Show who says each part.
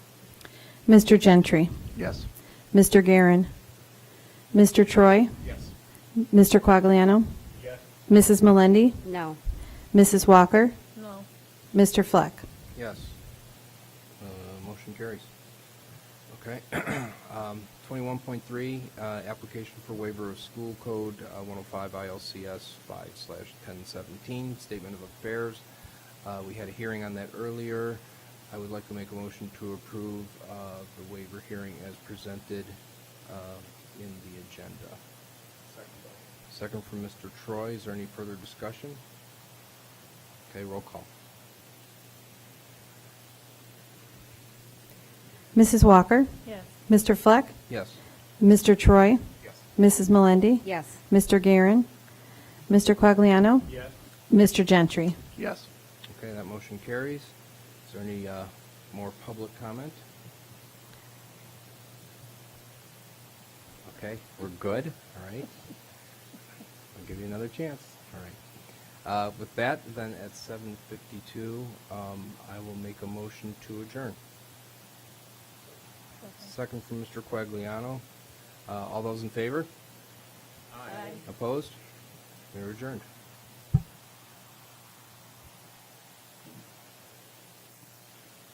Speaker 1: Mr. Gentry.
Speaker 2: Yes.
Speaker 1: Mr. Garin, Mr. Troy.
Speaker 2: Yes.
Speaker 1: Mr. Quagliano.
Speaker 2: Yes.
Speaker 1: Mrs. Melendi.
Speaker 3: No.
Speaker 1: Mrs. Walker.
Speaker 4: No.
Speaker 1: Mr. Fleck.
Speaker 2: Yes. Uh, Motion carries. Okay. Um, 21.3, uh, application for waiver of school code uh, 105 ILCS 5/1017, slash 1017, statement of affairs. Uh, We had a hearing on that earlier. I would like to make a motion to approve uh, the waiver hearing as presented uh, in the agenda. Second from Mr. Troy. Is there any further discussion? Okay, roll call.
Speaker 1: Mrs. Walker.
Speaker 4: Yes.
Speaker 1: Mr. Fleck.
Speaker 2: Yes.
Speaker 1: Mr. Troy.
Speaker 2: Yes.
Speaker 1: Mrs. Melendi.
Speaker 3: Yes.
Speaker 1: Mr. Garin, Mr. Quagliano.
Speaker 2: Yes.
Speaker 1: Mr. Gentry.
Speaker 2: Yes. Okay, that motion carries. Is there any uh, more public comment? Okay, we're good, all right. I'll give you another chance, all right. Uh, With that, then at 7:52, um, I will make a motion to adjourn. Second from Mr. Quagliano. Uh, All those in favor?
Speaker 4: Aye.
Speaker 2: Opposed? We're adjourned.